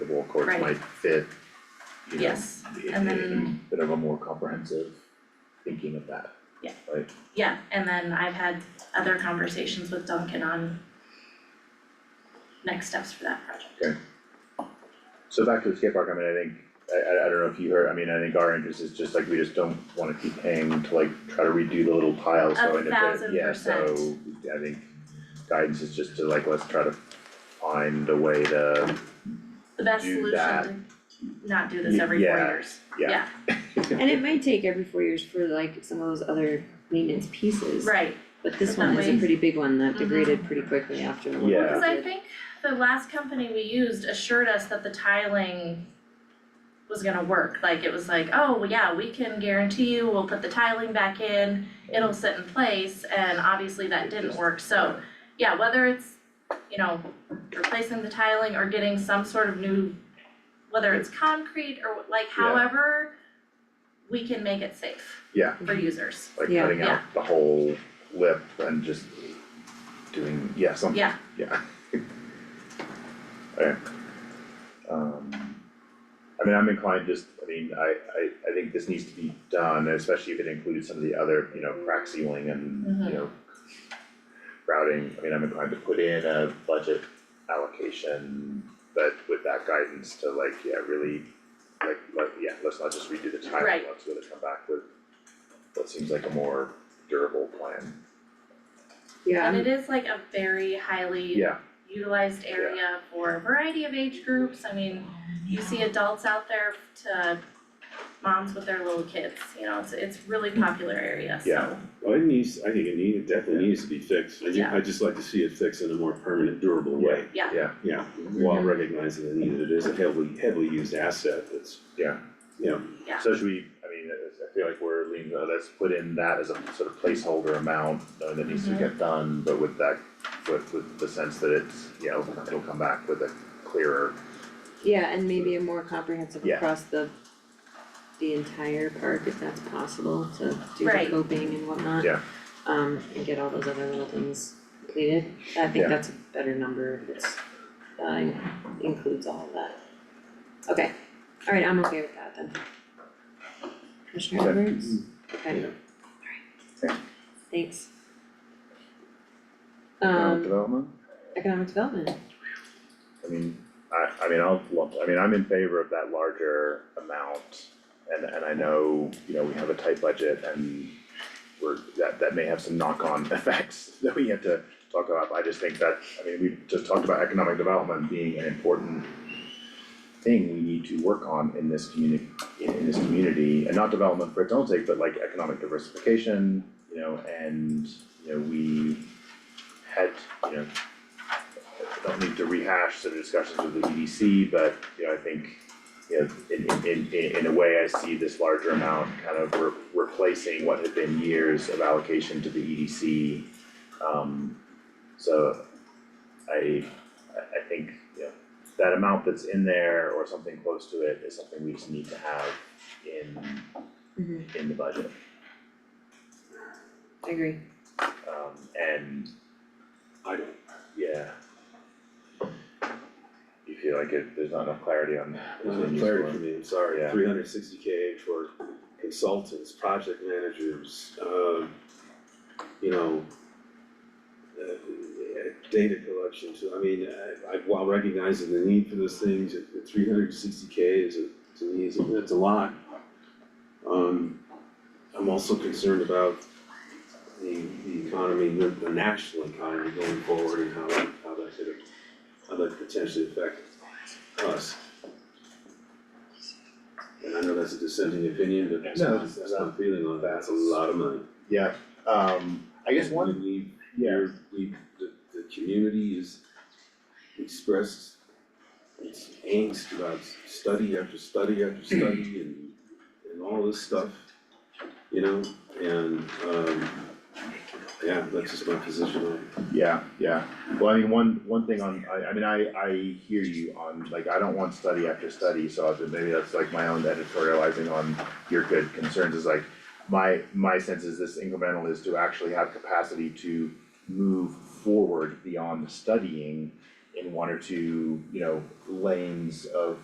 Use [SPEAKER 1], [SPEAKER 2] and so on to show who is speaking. [SPEAKER 1] courts
[SPEAKER 2] Right.
[SPEAKER 1] might fit, you know,
[SPEAKER 2] Yes,
[SPEAKER 1] it
[SPEAKER 2] and
[SPEAKER 1] needed a
[SPEAKER 2] then-
[SPEAKER 1] bit of a more comprehensive thinking of that.
[SPEAKER 2] Yeah.
[SPEAKER 1] Right,
[SPEAKER 2] yeah, and then I've had other conversations with Duncan on next steps for that project.
[SPEAKER 1] so back to the skate park, I mean, I think, I I I don't know if you heard, I mean, I think our interest is just like, we just don't wanna keep paying to like try to redo the little piles,
[SPEAKER 2] A
[SPEAKER 1] so and if it,
[SPEAKER 2] thousand
[SPEAKER 1] yeah,
[SPEAKER 2] percent.
[SPEAKER 1] so I think guidance is just to like, let's try to find a way to,
[SPEAKER 2] The best
[SPEAKER 1] Do
[SPEAKER 2] solution
[SPEAKER 1] that.
[SPEAKER 2] to not do this
[SPEAKER 1] Y-
[SPEAKER 2] every four
[SPEAKER 1] yeah.
[SPEAKER 2] years.
[SPEAKER 1] yeah,
[SPEAKER 3] And it might take every four years for like some of those other maintenance pieces.
[SPEAKER 2] Right,
[SPEAKER 3] But this
[SPEAKER 2] But that
[SPEAKER 3] one is a
[SPEAKER 2] way-
[SPEAKER 3] pretty big one that
[SPEAKER 2] Mhm.
[SPEAKER 3] degraded pretty quickly after the one.
[SPEAKER 1] Yeah.
[SPEAKER 2] because I think the last company we used assured us that the tiling was gonna work, like it was like, oh, well, yeah, we can guarantee you, we'll put the tiling back in, it'll sit in place, and obviously that
[SPEAKER 1] It
[SPEAKER 2] didn't
[SPEAKER 1] just-
[SPEAKER 2] work, so, yeah, whether it's, you know, replacing the tiling or getting some sort of new, whether it's concrete or like however, we can make it safe
[SPEAKER 1] yeah,
[SPEAKER 3] Mm-hmm.
[SPEAKER 2] for users,
[SPEAKER 1] like
[SPEAKER 3] Yeah.
[SPEAKER 1] cutting out
[SPEAKER 2] Yeah.
[SPEAKER 1] the whole lip and just doing, yeah, something.
[SPEAKER 2] yeah,
[SPEAKER 1] Yeah. Alright. Um, I mean, I'm inclined just, I mean, I, I, I think this needs to be done, especially if it includes some of the other, you know, crack sealing and,
[SPEAKER 2] Mhm.
[SPEAKER 1] you know, routing, I mean, I'm inclined to put in a budget allocation, but with that guidance to like, yeah, really, like, like, yeah, let's not just redo the time,
[SPEAKER 2] Right.
[SPEAKER 1] let's really come back with what seems like a more durable plan.
[SPEAKER 2] and
[SPEAKER 3] Yeah,
[SPEAKER 2] it is like a very highly
[SPEAKER 1] Yeah,
[SPEAKER 2] utilized area for a variety of age groups, I mean, you see adults out there to moms with their little kids, you know, it's it's really popular area,
[SPEAKER 1] Yeah.
[SPEAKER 2] so,
[SPEAKER 4] Well, it needs, I think it need, it definitely needs to be fixed, I just, I just like to see it fixed in a more permanent, durable way.
[SPEAKER 2] Yeah. Mm-hmm.
[SPEAKER 1] Yeah.
[SPEAKER 4] Yeah, while recognizing the need that it is a heavily, heavily used asset, it's,
[SPEAKER 2] yeah.
[SPEAKER 1] So should we, I mean, I I feel like we're leaning, uh, let's put in that as a sort of placeholder amount uh, that needs to
[SPEAKER 2] Mhm.
[SPEAKER 1] get done, but with that, with with the sense that it's, you know, it'll come back with a clearer,
[SPEAKER 3] yeah, and maybe a more comprehensive
[SPEAKER 1] Yeah.
[SPEAKER 3] across the the entire park if that's possible to do the
[SPEAKER 2] Right.
[SPEAKER 3] coping and whatnot.
[SPEAKER 1] Yeah.
[SPEAKER 3] Um, and get all those other little things completed. I think
[SPEAKER 1] Yeah.
[SPEAKER 3] that's a better number if it's uh includes all of that. Okay, alright, I'm okay with that then. Commissioner
[SPEAKER 1] Okay.
[SPEAKER 3] Edwards?
[SPEAKER 4] you
[SPEAKER 3] Okay,
[SPEAKER 4] know,
[SPEAKER 3] thanks.
[SPEAKER 1] uh,
[SPEAKER 3] Um,
[SPEAKER 1] development.
[SPEAKER 3] economic development,
[SPEAKER 1] I mean, I, I mean, I'll, lump- I mean, I'm in favor of that larger amount. And, and I know, you know, we have a tight budget and we're, that, that may have some knock-on effects that we have to talk about. but I just think that, I mean, we've just talked about economic development being an important thing we need to work on in this community, in, in this community. And not development for its own sake, but like economic diversification, you know, and, you know, we had, you know, I don't need to rehash some discussions with the EDC, but, you know, I think, you know, in, in, in, in a way, I see this larger amount kind of re- replacing what had been years of allocation to the EDC. Um, so I, I, I think, you know, that amount that's in there or something close to it is something we just need to have in,
[SPEAKER 3] Mhm.
[SPEAKER 1] in the budget.
[SPEAKER 3] I agree.
[SPEAKER 1] Um, and,
[SPEAKER 4] I don't,
[SPEAKER 1] yeah. You feel like it, there's not enough clarity on that.
[SPEAKER 2] Uh-huh.
[SPEAKER 4] there's no clarity for me, I'm sorry,
[SPEAKER 1] Yeah.
[SPEAKER 4] three hundred sixty K for consultants, project managers, uh, you know, uh, data collection too, I mean, uh, I, I, while recognizing the need for those things, three hundred sixty K is, a- to me, is, a- it's a lot. Um, I'm also concerned about the, the economy, the, the national economy going forward and how that, how that could, how that could potentially affect us. And I know that's a dissenting opinion, but that's,
[SPEAKER 1] No,
[SPEAKER 4] my-
[SPEAKER 1] that's-
[SPEAKER 4] that's my feeling on that, it's a lot of money.
[SPEAKER 1] Yeah, um, I guess one,
[SPEAKER 4] We,
[SPEAKER 1] yeah,
[SPEAKER 4] we're, we, the, the community is expressed its angst about study after study after study and, and all this stuff, you know, and, um, yeah, that's just my position on it.
[SPEAKER 1] yeah, yeah, well, I mean, one, one thing on, I, I mean, I, I hear you on, like, I don't want study after study, so I've been, maybe that's like my own editorializing on your good concerns is like, my, my sense is this incremental is to actually have capacity to move forward beyond studying in one or two, you know, lanes of